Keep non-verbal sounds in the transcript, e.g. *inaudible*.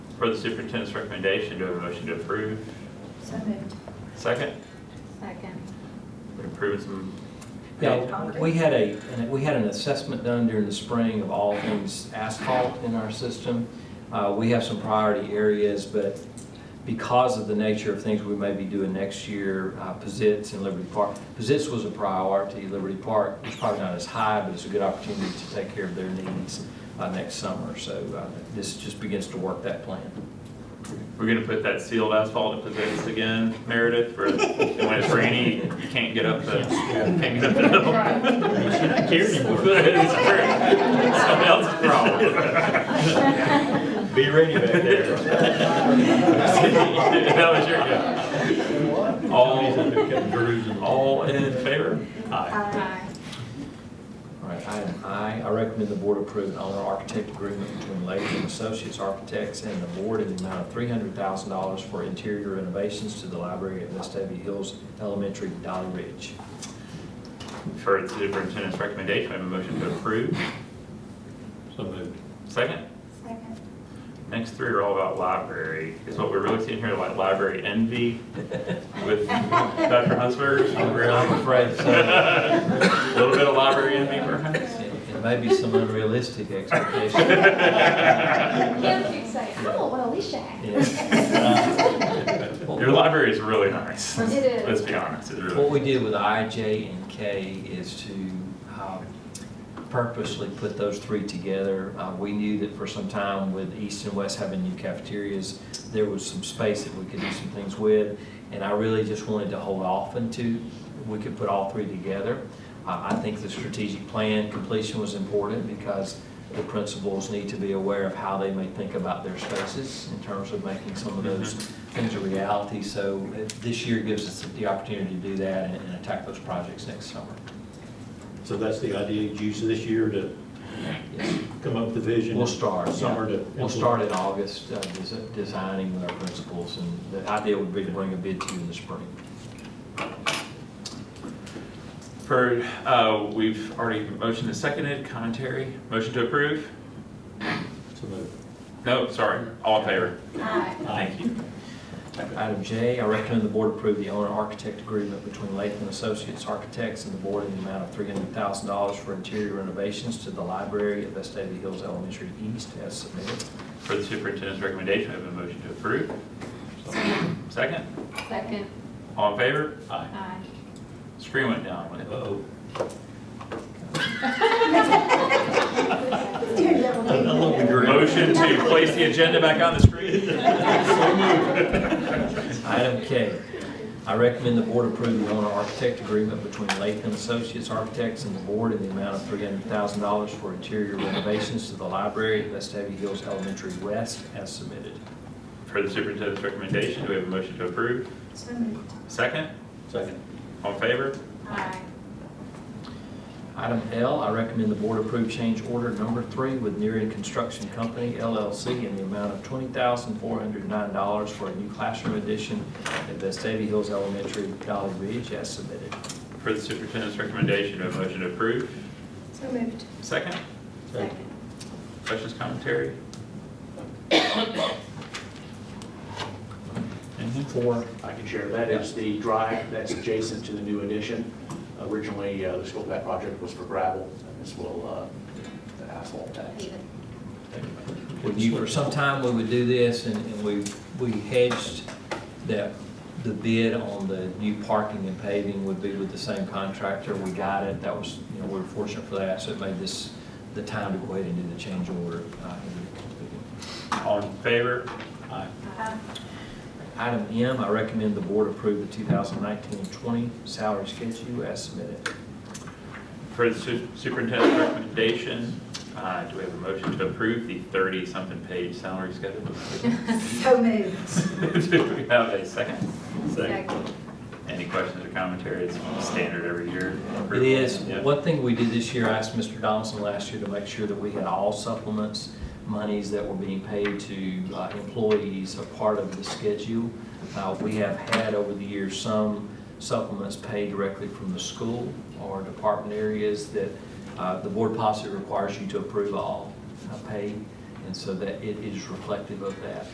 for the superintendent's recommendation, do I have a motion to approve? So moved. Second, Second. we're improving some. Yeah, we had a, we had an assessment done during the spring of all things asphalt in our system. Uh, We have some priority areas, but because of the nature of things we may be doing next year, uh, Pizzitz and Liberty Park, Pizzitz was a priority, Liberty Park was probably not as high, but it's a good opportunity to take care of their needs uh, next summer. So uh, this just begins to work that plan. We're gonna put that sealed asphalt in place again, Meredith, for, and when it's rainy, you can't get up the, can't get up the hill. You should not care *laughs* anymore. It's true. Somebody else's problem. Be ready back *laughs* there. That was your go. He's up All, there cutting grooves and all. all in favor? Aye. Aye. All right, item I, I recommend the board approve an owner-architect agreement between Latham and Associates Architects and the board in the amount of three hundred thousand dollars for interior renovations to the library at Vestavia Hills Elementary, Dolly Ridge. For the superintendent's recommendation, I have a motion to approve. So moved. Second, Second. next three are all about library, is what we're really seeing here, like library envy *laughs* with Dr. Huntsberger. I'm afraid so. A Little bit of library envy *laughs* perhaps. It may be some unrealistic expectation. Yeah, you say, "Oh, I want what Alicia Yeah. *laughs* Your library is really nice. It is. Let's be honest, it's really. What we did with I, J, and K is to um, purposely put those three together. Uh, We knew that for some time with East and West having new cafeterias, there was some space that we could do some things with. And I really just wanted to hold off until we could put all three together. Uh, I think the strategic plan completion was important because the principals need to be aware of how they may think about their spaces in terms of making some of those things a reality. So uh, this year gives us the opportunity to do that and and attack those projects next summer. So that's the idea, you use this year to Yes. come up with the vision? We'll start, yeah. Summer to. We'll start in August, uh, des- designing with our principals, and the idea would be to bring a bid to you in the spring. For, uh, we've already motioned and seconded, commentary, motion to approve? So moved. No, sorry, all in favor? *laughs* Aye. Thank you. Item J, I recommend the board approve the owner-architect agreement between Latham Associates Architects and the board in the amount of $300,000 for interior renovations to the library at Vestavia Hills Elementary East as submitted. For the superintendent's recommendation, I have a motion to approve. Second, Second. all in favor? Aye. Aye. Screen went down when it Uh-oh. I Aye. love the green. Motion to place the agenda back on the *laughs* screen. Item K, I recommend the board approve the owner-architect agreement between Latham Associates Architects and the board in the amount of $300,000 for interior renovations to the library at Vestavia Hills Elementary West as submitted. For the superintendent's recommendation, do we have a motion to approve? So moved. Second, Second. all in favor? Aye. Item L, I recommend the board approve change order number three with Nerean Construction Company LLC in the amount of $20,409 for a new classroom addition at Vestavia Hills Elementary, Dolly Ridge as submitted. For the superintendent's recommendation, do we have a motion to approve? So moved. Second, Second. questions, commentary? Anything? Four, I can share, that is the drive that's adjacent to the new addition. Originally, uh, the scope of that project was for gravel, and this will uh, asphalt that. We knew for some time we would do this, and, and we, we hedged that the bid on the new parking and paving would be with the same contractor. We got it, that was, you know, we were fortunate for that, so it made this the time to go ahead and do the change order. uh, All in favor? Aye. Aye. Item M, I recommend the board approve the 2019 and 20 salary schedule as submitted. For the su- superintendent's recommendation, uh, do we have a motion to approve the 30-something page salary schedule? So moved. Do we have a second? Second. Any questions or commentary? It's standard every year. It is. Yeah. One thing we did this year, I asked Mr. Donaldson last year to make sure that we had all supplements, monies that were being paid to uh, employees a part of the schedule. Uh, We have had over the years some supplements paid directly from the school or department areas that uh, the board policy requires you to approve all uh, paid. And so that it is reflective of that.